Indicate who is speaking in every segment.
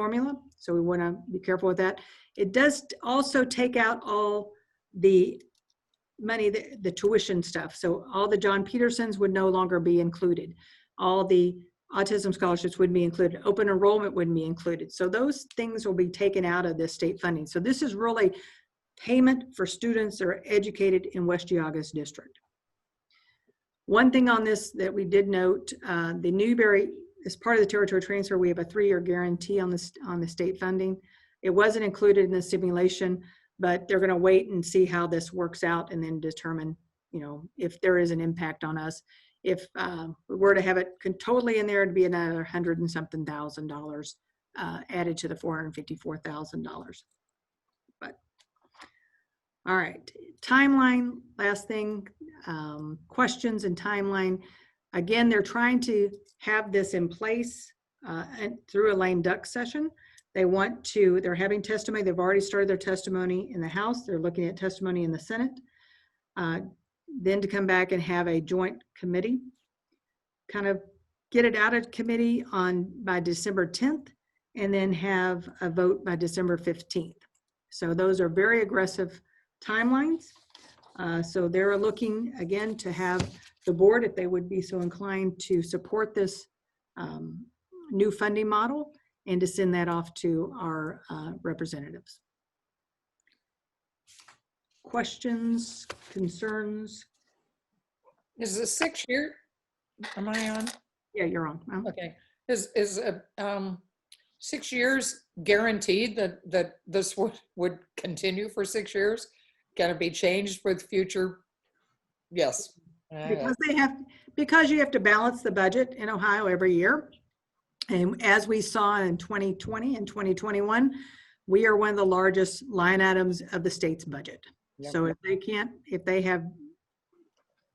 Speaker 1: formula, so we want to be careful with that. It does also take out all the money, the the tuition stuff, so all the John Petersons would no longer be included. All the autism scholarships would be included, open enrollment wouldn't be included. So those things will be taken out of this state funding. So this is really payment for students that are educated in West Geogos District. One thing on this that we did note, uh, the Newberry, as part of the territory transfer, we have a three-year guarantee on this, on the state funding. It wasn't included in the simulation, but they're gonna wait and see how this works out and then determine, you know, if there is an impact on us. If um, we were to have it con- totally in there, it'd be another hundred and something thousand dollars uh, added to the four hundred and fifty-four thousand dollars. But, all right, timeline, last thing, um, questions and timeline. Again, they're trying to have this in place uh, and through a lame duck session. They want to, they're having testimony, they've already started their testimony in the House, they're looking at testimony in the Senate. Uh, Then to come back and have a joint committee, kind of get it out of committee on, by December 10th, and then have a vote by December 15th. So those are very aggressive timelines. Uh, So they're looking, again, to have the board, if they would be so inclined, to support this um, new funding model and to send that off to our uh, representatives. Questions, concerns?
Speaker 2: Is this six year? Am I on?
Speaker 1: Yeah, you're on. Mel.
Speaker 2: Okay. Is, is, uh, um, six years guaranteed that, that this would, would continue for six years? Gonna be changed with future? Yes. I know.
Speaker 1: Because they have, because you have to balance the budget in Ohio every year. And as we saw in 2020 and 2021, we are one of the largest line items of the state's budget.
Speaker 2: Yep.
Speaker 1: So if they can't, if they have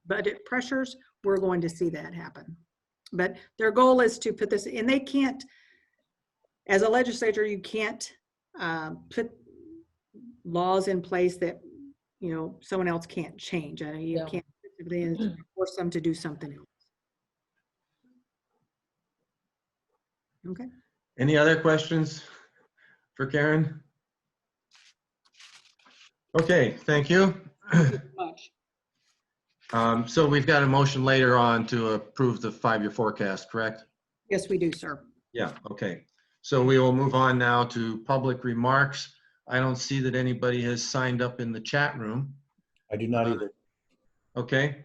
Speaker 1: budget pressures, we're going to see that happen. But their goal is to put this, and they can't, as a legislature, you can't um, put laws in place that, you know, someone else can't change. I know you
Speaker 2: Yeah.
Speaker 1: can't specifically in- force them to do something else.
Speaker 3: Any other questions for Karen? Okay, thank you.
Speaker 1: Much.
Speaker 3: Um, So we've got a motion later on to approve the five-year forecast, correct?
Speaker 1: Yes, we do, sir.
Speaker 3: Yeah, okay. So we will move on now to public remarks. I don't see that anybody has signed up in the chat room.
Speaker 4: I do not either.
Speaker 3: Okay,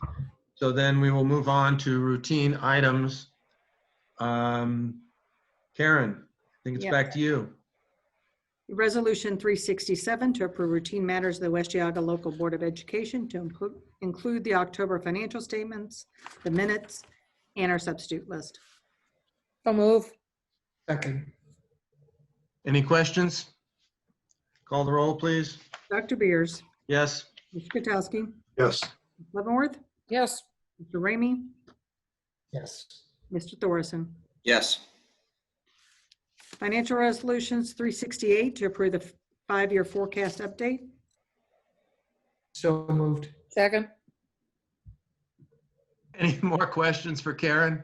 Speaker 3: so then we will move on to routine items. Um, Karen, I think it's
Speaker 1: Yeah.
Speaker 3: back to you.
Speaker 1: Resolution 367 to approve routine matters of the West Yaga Local Board of Education to inclu- include the October financial statements, the minutes, and our substitute list.
Speaker 2: So move.
Speaker 3: Second. Any questions? Call the roll, please.
Speaker 1: Dr. Beers,
Speaker 3: Yes,
Speaker 1: Mr. Katsowski,
Speaker 4: Yes.
Speaker 1: Ms. Leavenworth,
Speaker 2: Yes.
Speaker 1: Mr. Ramey,
Speaker 4: Yes.
Speaker 1: Mr. Thorson.
Speaker 5: Yes,
Speaker 1: Financial Resolutions 368 to approve the f- five-year forecast update.
Speaker 4: So moved.
Speaker 2: Second.
Speaker 3: any more questions for Karen?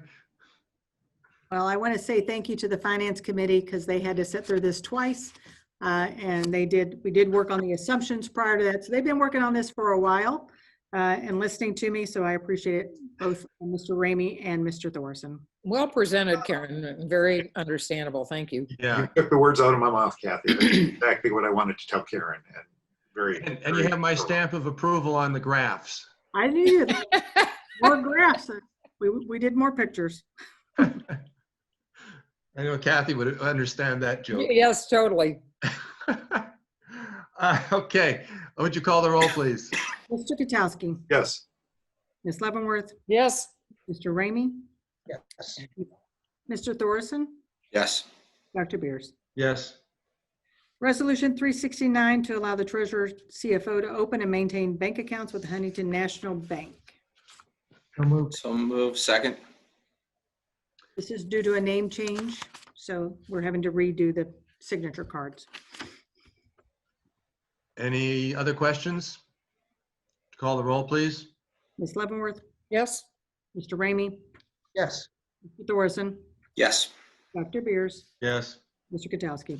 Speaker 1: Well, I want to say thank you to the Finance Committee because they had to sit through this twice. uh, And they did, we did work on the assumptions prior to that. So they've been working on this for a while uh, and listening to me. So I appreciate it, both Mr. Ramey and Mr. Thorson.
Speaker 2: Well presented, Karen. Very understandable. Thank you.
Speaker 3: Yeah,
Speaker 6: You took the words out of my mouth, Kathy. That's exactly what I wanted to tell Karen and very.
Speaker 3: and, and you have my stamp of approval on the graphs.
Speaker 1: I knew that. More graphs. We, we did more pictures.
Speaker 3: I know Kathy would understand that joke.
Speaker 2: Yes, totally.
Speaker 3: Uh, Okay, would you call the roll, please?
Speaker 1: Mr. Katsowski,
Speaker 6: Yes,
Speaker 1: Ms. Leavenworth,
Speaker 2: Yes.
Speaker 1: Mr. Ramey? Mr. Thorson,
Speaker 5: yes,
Speaker 1: Dr. Beers?
Speaker 3: Yes,
Speaker 1: Resolution 369 to allow the treasurer CFO to open and maintain bank accounts with Huntington National Bank.
Speaker 4: So moved.
Speaker 5: so move, second,
Speaker 1: This is due to a name change, so we're having to redo the signature cards.
Speaker 3: any other questions? Call the roll, please.
Speaker 1: Ms. Leavenworth,
Speaker 2: Yes.
Speaker 1: Mr. Ramey,
Speaker 4: Yes.
Speaker 1: Mr. Thorson,
Speaker 5: yes,
Speaker 1: Dr. Beers,
Speaker 3: Yes,
Speaker 1: Mr. Katsowski.